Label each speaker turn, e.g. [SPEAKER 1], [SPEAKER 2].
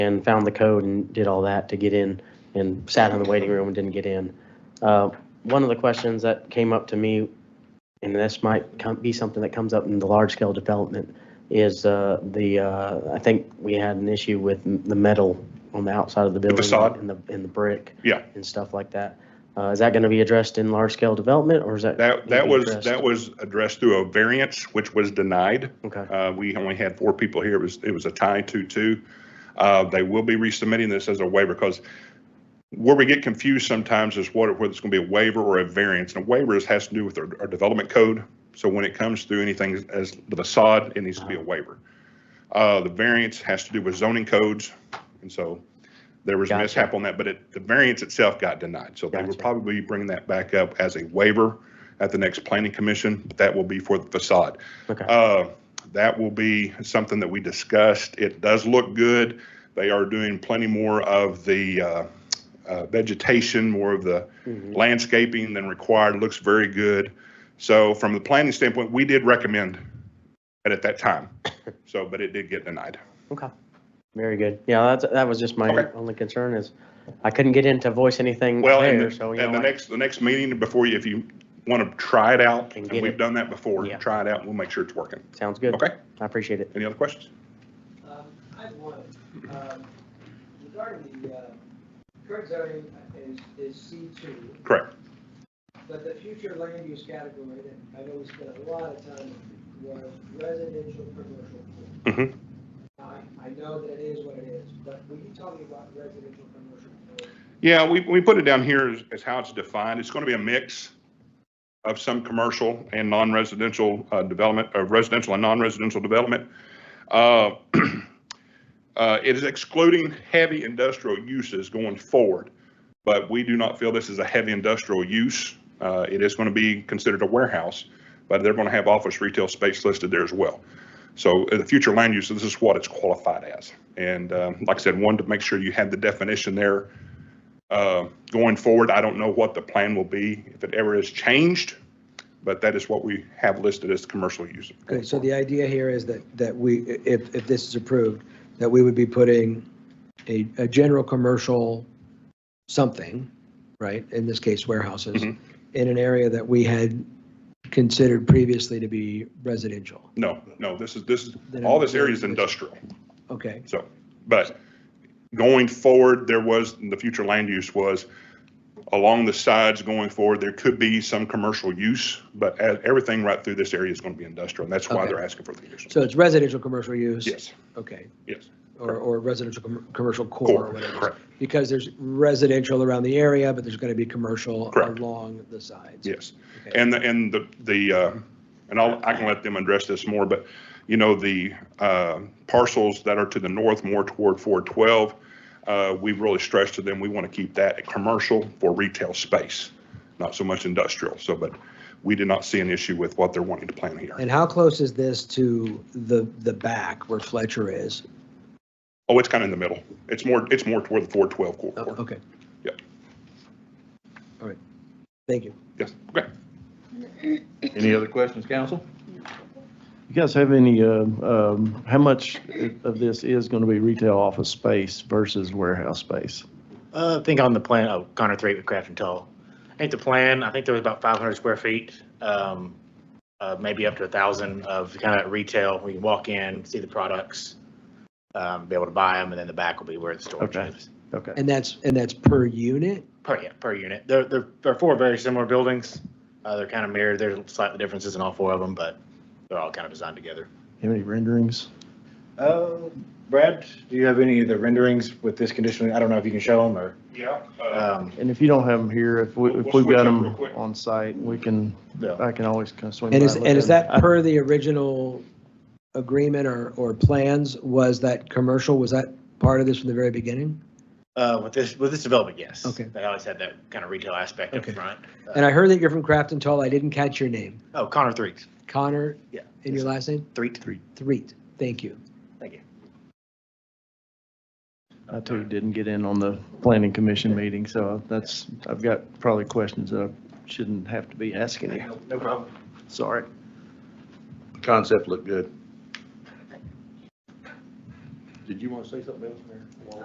[SPEAKER 1] and found the code and did all that to get in and sat in the waiting room and didn't get in. Uh, One of the questions that came up to me, and this might come- be something that comes up in the large-scale development, is uh, the, uh, I think we had an issue with m- the metal on the outside of the building.
[SPEAKER 2] facade?
[SPEAKER 1] And the, and the brick.
[SPEAKER 2] Yeah.
[SPEAKER 1] And stuff like that. Uh, Is that going to be addressed in large-scale development, or is that?
[SPEAKER 2] That, that
[SPEAKER 1] gonna be
[SPEAKER 2] was,
[SPEAKER 1] addressed?
[SPEAKER 2] that was addressed through a variance, which was denied.
[SPEAKER 1] Okay,
[SPEAKER 2] Uh, We only had four people here. It was, it was a tie two-two. Uh, They will be resubmitting this as a waiver because where we get confused sometimes is what, whether it's going to be a waiver or a variance. And a waiver is- has to do with our, our development code. So when it comes through anything as the facade, it needs to be a waiver. Uh, The variance has to do with zoning codes. And so there was
[SPEAKER 1] Gotcha.
[SPEAKER 2] mishap on that, but it, the variance itself got denied. So they will
[SPEAKER 1] Gotcha.
[SPEAKER 2] probably be bringing that back up as a waiver at the next planning commission, but that will be for the facade.
[SPEAKER 1] okay.
[SPEAKER 2] Uh, That will be something that we discussed. It does look good. They are doing plenty more of the uh, uh, vegetation, more of the
[SPEAKER 1] Mhm.
[SPEAKER 2] landscaping than required. Looks very good. So from the planning standpoint, we did recommend it at that time. So, but it did get denied.
[SPEAKER 1] Okay, very good. Yeah, that's, that was just my
[SPEAKER 2] Okay.
[SPEAKER 1] only concern is I couldn't get in to voice anything
[SPEAKER 2] Well, and
[SPEAKER 1] there,
[SPEAKER 2] and
[SPEAKER 1] so, you
[SPEAKER 2] the
[SPEAKER 1] know, I-
[SPEAKER 2] next, the next meeting before you, if you want to try it out,
[SPEAKER 1] Can
[SPEAKER 2] and
[SPEAKER 1] get
[SPEAKER 2] we've
[SPEAKER 1] it.
[SPEAKER 2] done that before,
[SPEAKER 1] Yeah.
[SPEAKER 2] try it out and we'll make sure it's working.
[SPEAKER 1] sounds good.
[SPEAKER 2] Okay?
[SPEAKER 1] I appreciate it.
[SPEAKER 2] Any other questions?
[SPEAKER 3] Um, I have one. Um, Regarding the, uh, current zoning is, is C two,
[SPEAKER 2] Correct.
[SPEAKER 3] but the future land use category, that I know we spent a lot of time on, was residential commercial. pool.
[SPEAKER 2] Mhm.
[SPEAKER 3] I, I know that it is what it is, but were you talking about residential commercial? pool?
[SPEAKER 2] Yeah, we, we put it down here as, as how it's defined. It's going to be a mix of some commercial and non-residential uh, development, uh, residential and non-residential development. Uh, uh, It is excluding heavy industrial uses going forward, but we do not feel this is a heavy industrial use. Uh, It is going to be considered a warehouse, but they're going to have office retail space listed there as well. So in the future land use, this is what it's qualified as. And um, like I said, one, to make sure you had the definition there uh, Going forward, I don't know what the plan will be, if it ever is changed, but that is what we have listed as commercial use.
[SPEAKER 4] Okay, so the idea here is that, that we, if, if this is approved, that we would be putting a, a general commercial something, right, in this case warehouses,
[SPEAKER 2] Mhm.
[SPEAKER 4] in an area that we had considered previously to be residential.
[SPEAKER 2] No, no, this is, this is,
[SPEAKER 4] Then
[SPEAKER 2] all
[SPEAKER 4] it-
[SPEAKER 2] this area is industrial,
[SPEAKER 4] Okay,
[SPEAKER 2] so, but going forward, there was, the future land use was along the sides going forward, there could be some commercial use, but e- everything right through this area is going to be industrial, and that's why
[SPEAKER 4] Okay.
[SPEAKER 2] they're asking for the use.
[SPEAKER 4] so it's residential commercial use?
[SPEAKER 2] Yes,
[SPEAKER 4] Okay,
[SPEAKER 2] yes,
[SPEAKER 4] or, or residential, com- commercial core, or
[SPEAKER 2] core,
[SPEAKER 4] whatever. it is.
[SPEAKER 2] correct,
[SPEAKER 4] Because there's residential around the area, but there's going to be commercial
[SPEAKER 2] Correct.
[SPEAKER 4] along the sides.
[SPEAKER 2] yes.
[SPEAKER 4] Okay.
[SPEAKER 2] And the, and the, the, uh, and I'll, I can let them address this more, but, you know, the uh, parcels that are to the north, more toward 412, uh, we've really stressed to them, we want to keep that a commercial for retail space, not so much industrial. So, but we did not see an issue with what they're wanting to plan here.
[SPEAKER 4] And how close is this to the, the back where Fletcher is?
[SPEAKER 2] Oh, it's kind of in the middle. It's more, it's more toward the 412 corridor.
[SPEAKER 4] Okay.
[SPEAKER 2] Yep.
[SPEAKER 4] All right. Thank you.
[SPEAKER 2] Yes, okay.
[SPEAKER 5] Any other questions, council?
[SPEAKER 6] You guys have any, uh, um, how much of this is going to be retail office space versus warehouse space?
[SPEAKER 7] Uh, I think on the plan, oh, Connor three with Craft and Toll. I think the plan, I think there was about five hundred square feet, um, uh, maybe up to a thousand of kind of retail. We can walk in, see the products, um, be able to buy them, and then the back will be where the storage
[SPEAKER 6] Okay.
[SPEAKER 7] is.
[SPEAKER 6] Okay.
[SPEAKER 4] And that's, and that's per unit?
[SPEAKER 7] Per, yeah, per unit. They're, they're, they're four very similar buildings. Uh, they're kind of mirrored. There's slight differences in all four of them, but they're all kind of designed together.
[SPEAKER 6] Have any renderings?
[SPEAKER 7] Uh, Brad, do you have any of the renderings with this condition? I don't know if you can show them or,
[SPEAKER 2] Yeah.
[SPEAKER 7] um,
[SPEAKER 6] And if you don't have them here, if we, if
[SPEAKER 2] We'll
[SPEAKER 6] we've got
[SPEAKER 2] switch up real
[SPEAKER 6] them
[SPEAKER 2] quick.
[SPEAKER 6] on site, we can,
[SPEAKER 7] no.
[SPEAKER 6] I can always kind of swing by.
[SPEAKER 4] And is,
[SPEAKER 6] look
[SPEAKER 4] and is
[SPEAKER 6] at 'em.
[SPEAKER 4] that per the original agreement or, or plans? Was that commercial? Was that part of this from the very beginning?
[SPEAKER 7] Uh, with this, with this development, yes.
[SPEAKER 4] Okay.
[SPEAKER 7] They always had that kind of retail aspect up
[SPEAKER 4] Okay.
[SPEAKER 7] front.
[SPEAKER 4] And I heard that you're from Craft and Toll. I didn't catch your name.
[SPEAKER 7] Oh, Connor Threet.
[SPEAKER 4] Connor?
[SPEAKER 7] Yeah.
[SPEAKER 4] And your last name?
[SPEAKER 7] Threet. Threet.
[SPEAKER 4] Threet. Thank you.
[SPEAKER 7] Thank you.
[SPEAKER 6] I too didn't get in on the planning commission meeting, so that's, I've got probably questions that I shouldn't have to be asking you.
[SPEAKER 7] No problem.
[SPEAKER 6] Sorry.
[SPEAKER 5] Concept looked good. Did you want to say something else, Mayor?